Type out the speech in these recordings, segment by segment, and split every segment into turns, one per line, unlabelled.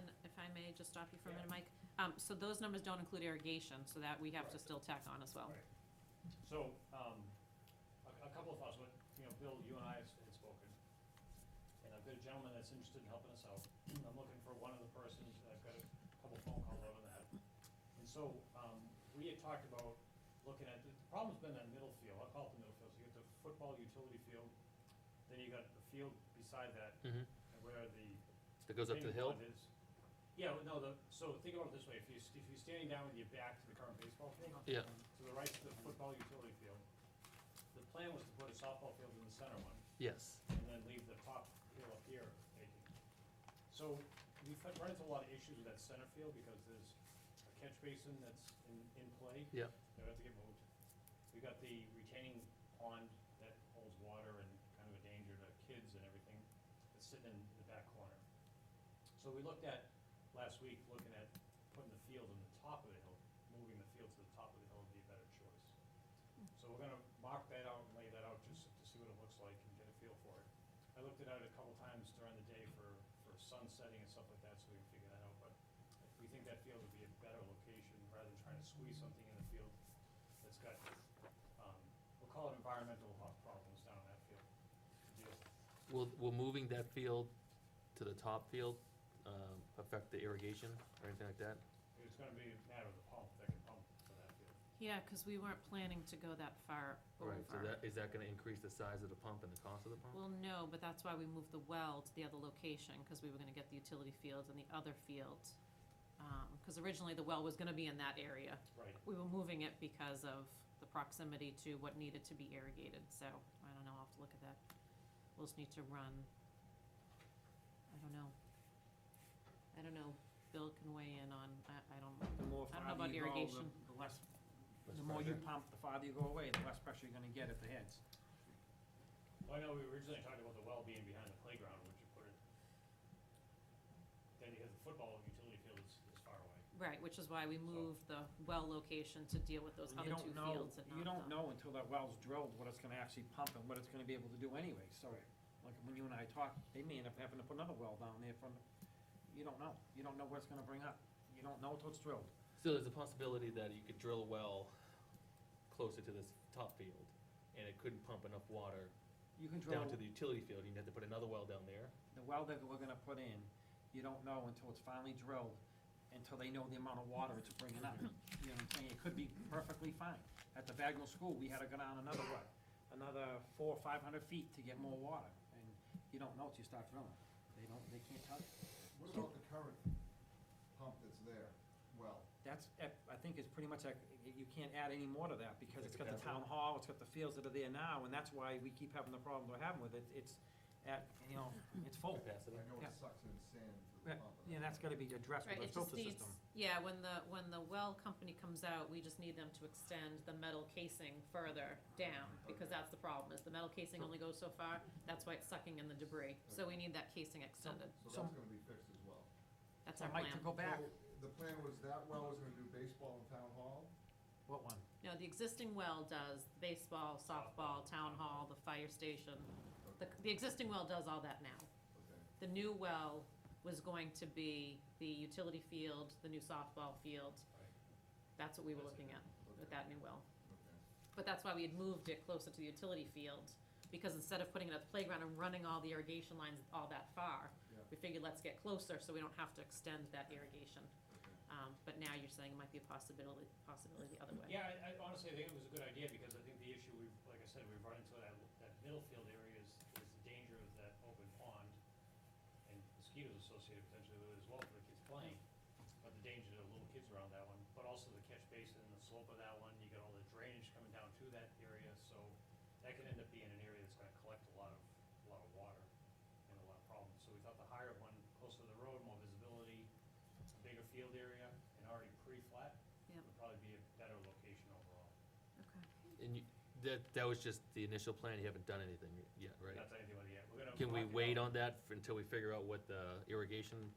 I just stop you for a minute, Mike? Um, so those numbers don't include irrigation, so that we have to
Correct.
still tack on as well.
Right. So, um, a, a couple of thoughts, but, you know, Bill, you and I have s- had spoken, and I've got a gentleman that's interested in helping us out. I'm looking for one of the persons, and I've got a couple phone calls over that. And so, um, we had talked about looking at, the the problem's been that middle field, I call it the middle field, so you got the football utility field, then you got the field beside that,
Mhm.
and where the
That goes up to
Thing
the hill?
one is- Yeah, well, no, the, so think about it this way, if you, if you're standing down with your back to the current baseball field.
Yeah.
To the right to the football utility field, the plan was to put a softball field in the center one,
Yes.
and then leave the top hill up here vacant. So we've had- run into a lot of issues with that center field because there's a catch basin that's in, in play.
Yep.
That would have to get moved. We've got the retaining pond that holds water and kind of a danger to kids and everything that's sitting in the back corner. So we looked at, last week, looking at putting the field on the top of the hill, moving the field to the top of the hill would be a better choice. So we're gonna mark that out and lay that out just to see what it looks like and get a feel for it. I looked it out a couple times during the day for, for sun setting and stuff like that, so we can figure that out, but we think that field would be a better location rather than trying to squeeze something in the field that's got, um, we'll call it environmental ho- problems down in that field. to deal with.
Will, will moving that field to the top field um, affect the irrigation or anything like that?
It's gonna be a matter of the pump, that can pump for that field.
Yeah, cause we weren't planning to go that far
Right, so
over.
that, is that gonna increase the size of the pump and the cost of the pump?
Well, no, but that's why we moved the well to the other location, cause we were gonna get the utility fields and the other field. Um, cause originally the well was gonna be in that area.
Right,
We were moving it because of the proximity to what needed to be irrigated, so I don't know, I'll have to look at that. We'll just need to run, I don't know. I don't know, Bill can weigh in on, I, I don't,
The more
I don't know about
farther you go,
irrigation.
the- the less,
Less
the more you
pressure?
pump, the farther you go away, the less pressure you're gonna get at the heads.
well, I know we originally talked about the well being behind the playground, would you put it? Then you have the football utility field is, is far away.
right, which is why we moved the well location to deal with those
And
other
you
two
don't know-
fields and not the.
You don't know until that well's drilled what it's gonna actually pump and what it's gonna be able to do anyway, so, like, when you and I talk, they may end up having to put another well down there from, you don't know, you don't know what it's gonna bring up, you don't know until it's drilled.
So there's a possibility that you could drill a well closer to this top field, and it couldn't pump enough water
You can drill,
down to the utility field, you'd have to put another well down there.
the well that we're gonna put in, you don't know until it's finally drilled, until they know the amount of water it's bringing up. You know what I'm saying? It could be perfectly fine. At the Bagnell School, we had to go down another what? Another four, or five hundred feet to get more water, and you don't know till you start drilling. They don't, they can't tell you.
What about the current pump that's there? Well,
That's, I think it's pretty much, like, y- you can't add any more to that, because it's got the
That's it.
town hall, it's got the fields that are there now, and that's why we keep having the problem we're having with it. It's at, you know, it's full.
Capacity.
I know
Yeah.
it sucks in sand through
Yeah,
the pump. and
Yeah, that's gotta be addressed
Right, it
with the
just
filter
needs,
system.
yeah, when the, when the well company comes out, we just need them to extend the metal casing further down, because that's the problem, is the metal casing only goes so far, that's why it's sucking in the debris, so we need that casing extended,
So
So-
that's gonna be fixed as well.
that's
So
our plan.
Mike, to go back,
So The plan was that well was gonna do baseball in town hall?
what one?
No, the existing well does baseball, softball, town hall, the fire station, the, the existing well does all that now.
Okay.
The new well was going to be the utility field, the new softball field,
Right.
that's what we were
That's it.
looking at, with
Okay.
that new well.
Okay.
But that's why we had moved it closer to the utility field, because instead of putting it at the playground and running all the irrigation lines all that far,
Yeah.
we figured let's get closer so we don't have to extend that irrigation.
Okay.
Um, but now you're saying it might be a possibility, possibility the other way.
Yeah, I, I honestly think it was a good idea, because I think the issue, we've, like I said, we've run into that, that middle field area is, is the danger of that open pond, and mosquitoes associated potentially with it as well for the kids playing, but the danger to the little kids around that one, but also the catch basin and the slope of that one, you got all the drainage coming down to that area, so that could end up being an area that's gonna collect a lot of, a lot of water and a lot of problems, so we thought the higher one, closer to the road, more visibility, a bigger field area, and already pre-flat,
Yep.
would probably be a better location overall.
Okay.
And you, that, that was just the initial plan, you haven't done anything yet, right?
Not done anything with it yet, we're gonna.
Can we
talk it
wait
out.
on that f- until we figure out what the irrigation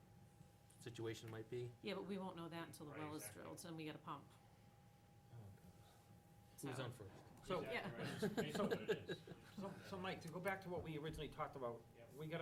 situation might be?
Yeah, but we won't know that until the
Right,
well is
exactly.
drilled and we get a pump.
Who's
So-
on first?
So-
Exactly
Yeah.
right. It's basically what it is.
So, so Mike, to go back to what we originally talked about,
Yep.
we gotta